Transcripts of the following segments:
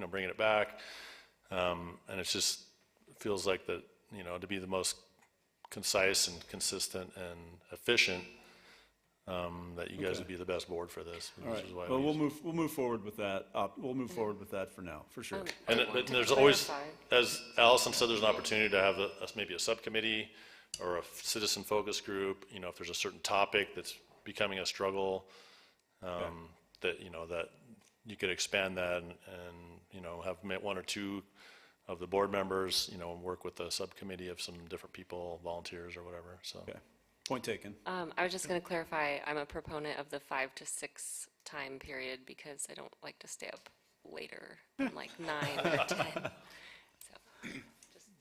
know, bringing it back. Um, and it's just, feels like that, you know, to be the most concise and consistent and efficient, um, that you guys would be the best board for this, All which is why. right, well, we- we'll move, we'll move forward with that, up, we'll move forward with that for now, for sure. And I it- want and to there's always, clarify. as Allison said, there's an opportunity to have a, a- maybe a subcommittee or a citizen focus group, you know, if there's a certain topic that's becoming a struggle, um, that, you know, that you could expand that and, and, you know, have met one or two of the board members, you know, and work with a subcommittee of some different people, volunteers or whatever, so. Okay, point taken. Um, I was just gonna clarify, I'm a proponent of the five to six time period because I don't like to stay up later than like nine or ten. So,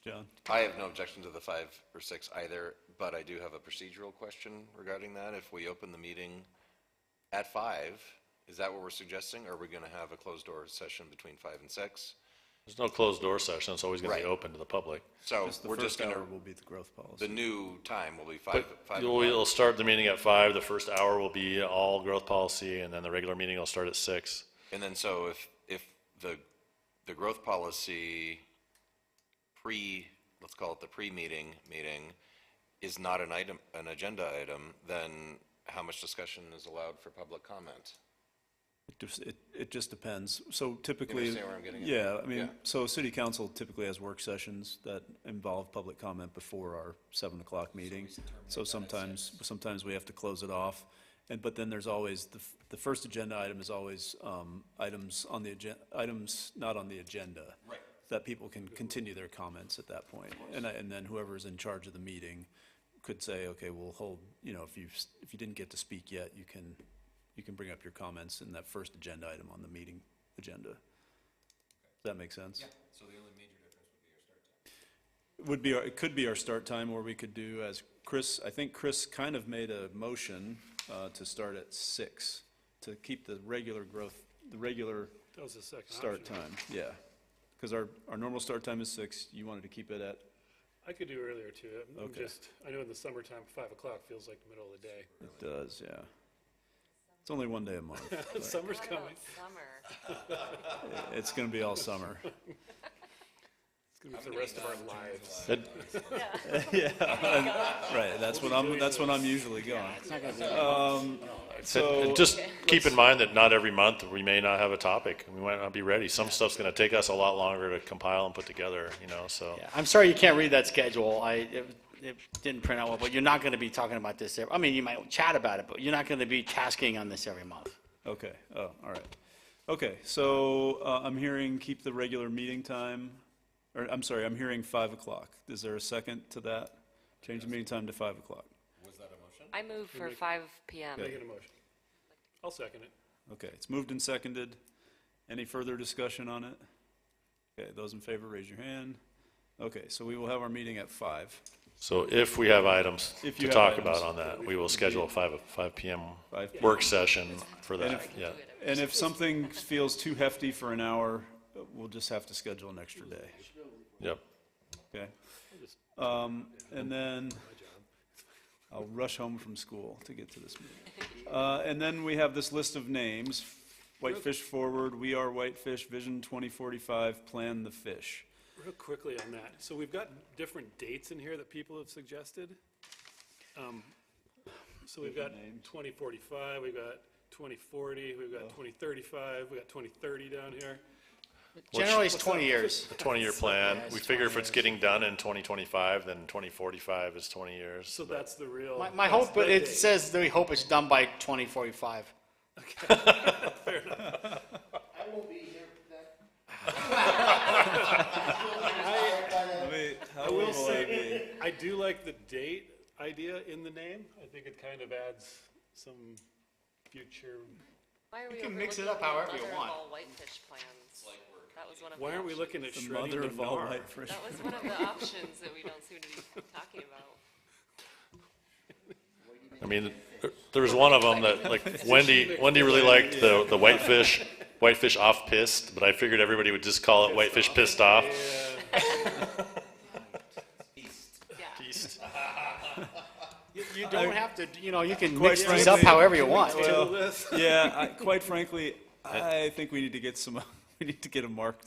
John, I have no objection to the five or six either, but I do have a procedural question regarding that. If we open the meeting at five, is that what we're suggesting? Or are we going to have a closed door session between five and six? There's no closed door session, it's always gonna be Right. open to the public. So just the we're just first going hour to, will be the growth the policy. new time will be five, But five you'll, you'll o'clock. start the meeting at five, the first hour will be all growth policy, and then the regular meeting will start at six. And then so if, if the, the growth policy pre, let's call it the pre-meeting meeting is not an item, an agenda item, then how much discussion is allowed for public comment? It just- It, it just depends, so typically. understand where I'm getting at? Yeah, I mean, Yeah. so city council typically has work sessions that involve public comment before our seven o'clock meeting. So sometimes, sometimes we have to close it off, and, but then there's always, the, f- the first agenda item is always, um, items on the agen, items not on the agenda. Right. That people can continue their comments at that point, and, I- and then whoever's in charge of the meeting could say, okay, we'll hold, you know, if you, if you didn't get to speak yet, you can, you can bring up your comments in that first agenda item on the meeting agenda. Does that make sense? Yeah, so the only major difference would be our start time. Would be, our- it could be our start time, or we could do as Chris, I think Chris kind of made a motion uh, to start at six, to keep the regular growth, the regular That was the second start option. time, yeah. Because our, our normal start time is six, you wanted to keep it at, I could do earlier too. I'm- I'm Okay. just, I know in the summertime, five o'clock feels like the middle of the day. it does, yeah. It's only one day a month. Summer's what coming. about summer? It's going to be all summer. It's gonna be for the rest of our lives. It- Right, that's when I'm, that's when I'm usually going. Um, So, And just keep in mind that not every month, we may not have a topic, we might not be ready. Some stuff's gonna take us a lot longer to compile and put together, you know, so. Yeah, I'm sorry you can't read that schedule. I, it, it didn't print out well, but you're not gonna be talking about this, every- I mean, you might chat about it, but you're not gonna be tasking on this every month. okay, oh, all right. Okay, so uh, I'm hearing keep the regular meeting time, or I'm sorry, I'm hearing 5 o'clock. Is there a second to that? Change the meeting time to 5 o'clock. I move for five PM. Making a motion. I'll second it. Okay, it's moved and seconded. Any further discussion on it? Okay, those in favor, raise your hand. Okay, so we will have our meeting at 5, So if we have items If to you have talk items. about on that, we will schedule a five, five PM 5 p.m. work session for that, yeah. And if something feels too hefty for an hour, uh, we'll just have to schedule an extra day, Yep. okay? Um, and then I'll rush home from school to get to this meeting. Uh, and then we have this list of names, Whitefish Forward, We Are Whitefish, Vision 2045, Plan the Fish. Real quickly on that. So we've got different dates in here that people have suggested. Um, So we've got twenty forty-five, we've got twenty forty, we've Oh. got twenty thirty-five, we've got twenty thirty down here. Generally, it's twenty years. The twenty-year plan, we figure if it's getting done in twenty twenty-five, then twenty forty-five is twenty years. So that's the real. My, my that's hope, but the it date. says that we hope it's done by twenty forty-five. uh, How will I be? I do like the date idea in the name. I think it kind of adds some future. You can mix it up however you want. Whitefish plans. That was one of the Why aren't we options. looking at The shredding mother the of all gnar? whitefish. That was one of the options that we don't seem to be talking about. I mean, there- there was one of them that, like, Wendy, Wendy really liked the, the whitefish, whitefish off pissed, but I figured everybody would just call it whitefish pissed off. Yeah. East. You, you don't have to, you know, you can Quite mix these up frankly- however you want. Well, yeah, I, quite frankly, I think we need to get some, we need to get a mark,